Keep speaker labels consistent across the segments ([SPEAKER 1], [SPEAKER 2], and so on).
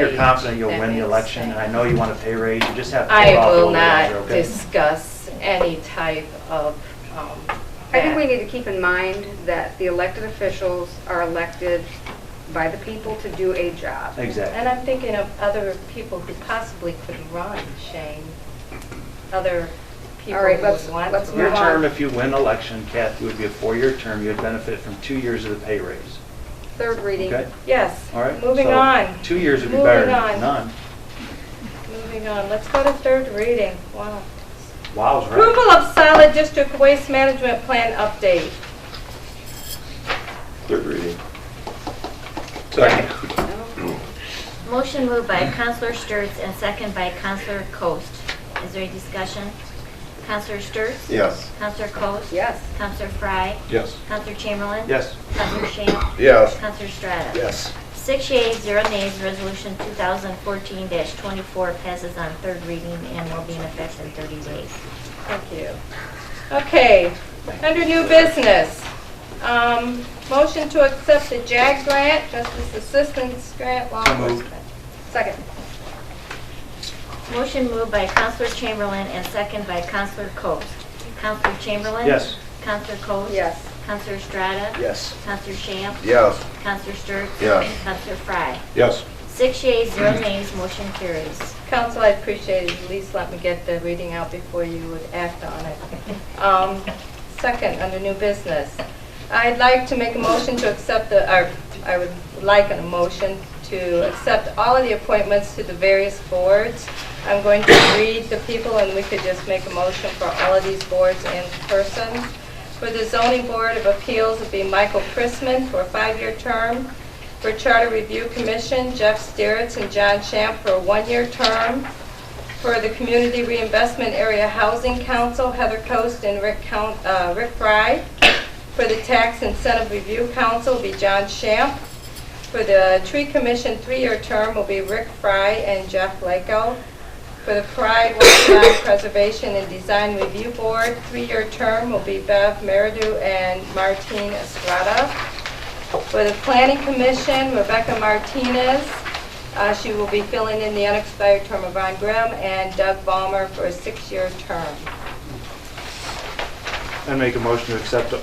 [SPEAKER 1] you're confident you'll
[SPEAKER 2] That
[SPEAKER 1] win the
[SPEAKER 2] makes
[SPEAKER 1] election, and I know you want a pay raise, you just have to hold
[SPEAKER 2] I
[SPEAKER 1] off a
[SPEAKER 2] will
[SPEAKER 1] little longer,
[SPEAKER 2] not
[SPEAKER 1] okay?
[SPEAKER 2] discuss any type of, um,
[SPEAKER 3] I think we
[SPEAKER 2] that.
[SPEAKER 3] need to keep in mind that the elected officials are elected by the people to do a job.
[SPEAKER 2] And
[SPEAKER 1] Exactly.
[SPEAKER 2] I'm thinking of other people who possibly could run, Shane. Other people
[SPEAKER 3] All right,
[SPEAKER 2] who
[SPEAKER 3] let's-
[SPEAKER 2] would want
[SPEAKER 3] let's
[SPEAKER 2] to
[SPEAKER 3] move
[SPEAKER 1] Your
[SPEAKER 3] on.
[SPEAKER 2] run.
[SPEAKER 1] term, if you win election, Kathy, would be a four-year term, you'd benefit from two years of the pay raise,
[SPEAKER 3] Third reading.
[SPEAKER 1] okay?
[SPEAKER 2] Yes,
[SPEAKER 1] All right?
[SPEAKER 2] moving
[SPEAKER 1] So,
[SPEAKER 2] on,
[SPEAKER 1] Two years would be better
[SPEAKER 2] Moving
[SPEAKER 1] than
[SPEAKER 2] on.
[SPEAKER 1] none.
[SPEAKER 2] moving on. Let's go to third reading. Wow.
[SPEAKER 1] Wow's right.
[SPEAKER 2] Approval of solid district waste management plan update.
[SPEAKER 1] Third reading.
[SPEAKER 2] Second.
[SPEAKER 4] Motion moved by Counselor Sturts and second by Counselor Coast. Is there any discussion? Counselor Sturts?
[SPEAKER 5] Yes.
[SPEAKER 4] Counselor Coast?
[SPEAKER 3] Yes.
[SPEAKER 4] Counselor Fry?
[SPEAKER 5] Yes.
[SPEAKER 4] Counselor Chamberlain?
[SPEAKER 1] Yes.
[SPEAKER 4] Counselor Shamp?
[SPEAKER 5] Yes.
[SPEAKER 4] Counselor Strata?
[SPEAKER 5] Yes.
[SPEAKER 4] Six yeas, zero nays, resolution 2014-24 passes on third reading and will be in effect in 30 days.
[SPEAKER 2] Thank you. Okay, under new business, um, motion to accept the JAG grant, Justice Assistance Grant Law
[SPEAKER 1] So moved.
[SPEAKER 2] Enforcement. Second.
[SPEAKER 4] Motion moved by Counselor Chamberlain and second by Counselor Coast. Counselor Chamberlain?
[SPEAKER 1] Yes.
[SPEAKER 4] Counselor Coast?
[SPEAKER 3] Yes.
[SPEAKER 4] Counselor Strata?
[SPEAKER 5] Yes.
[SPEAKER 4] Counselor Shamp?
[SPEAKER 5] Yes.
[SPEAKER 4] Counselor Sturts?
[SPEAKER 5] Yes.
[SPEAKER 4] Counselor Fry?
[SPEAKER 5] Yes.
[SPEAKER 4] Six yeas, zero nays, motion carries.
[SPEAKER 2] Council, I appreciate it. At least let me get the reading out before you would act on it. Um, Second, under new business, I'd like to make a motion to accept the, or I would like a motion to accept all of the appointments to the various boards. I'm going to read the people, and we could just make a motion for all of these boards in person. For the zoning board of appeals, it'd be Michael Prisman for a five-year term. For Charter Review Commission, Jeff Steritz and John Champ for a one-year term. For the Community Reinvestment Area Housing Council, Heather Coast and Rick Count- uh, Rick Fry. For the Tax Incentive Review Council will be John Champ. For the Tree Commission, three-year term will be Rick Fry and Jeff Lako. For the Pride Wildlife Preservation and Design Review Board, three-year term will be Bev Meridew and Martine Estrada. For the Planning Commission, Rebecca Martinez. Uh, She will be filling in the unexpired term of Ron Grimm and Doug Ballmer for a six-year term.
[SPEAKER 1] And make a motion to accept it.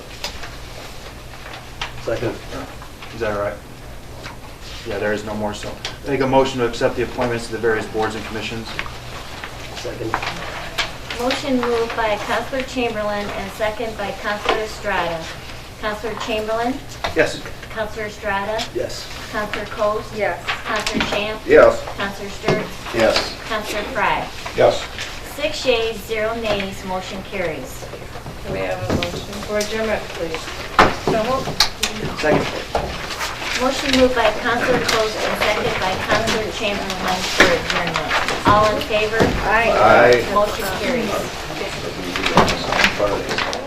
[SPEAKER 1] Second. Is that all right? Yeah, there is no more, so. Make a motion to accept the appointments to the various boards and commissions.
[SPEAKER 4] Motion moved by Counselor Chamberlain and second by Counselor Estrada. Counselor Chamberlain?
[SPEAKER 1] Yes.
[SPEAKER 4] Counselor Estrada?
[SPEAKER 5] Yes.
[SPEAKER 4] Counselor Coast?
[SPEAKER 3] Yes.
[SPEAKER 4] Counselor Champ?
[SPEAKER 5] Yes.
[SPEAKER 4] Counselor Sturts?
[SPEAKER 5] Yes.
[SPEAKER 4] Counselor Fry?
[SPEAKER 5] Yes.
[SPEAKER 4] Six yeas, zero nays, motion carries.
[SPEAKER 2] Can we have a motion for adjournment, please? So moved.
[SPEAKER 1] Second.
[SPEAKER 4] Motion moved by Counselor Coast and second by Counselor Chamberlain for adjournment. All in favor?
[SPEAKER 5] Aye.
[SPEAKER 4] Motion carries.
[SPEAKER 5] Fridays.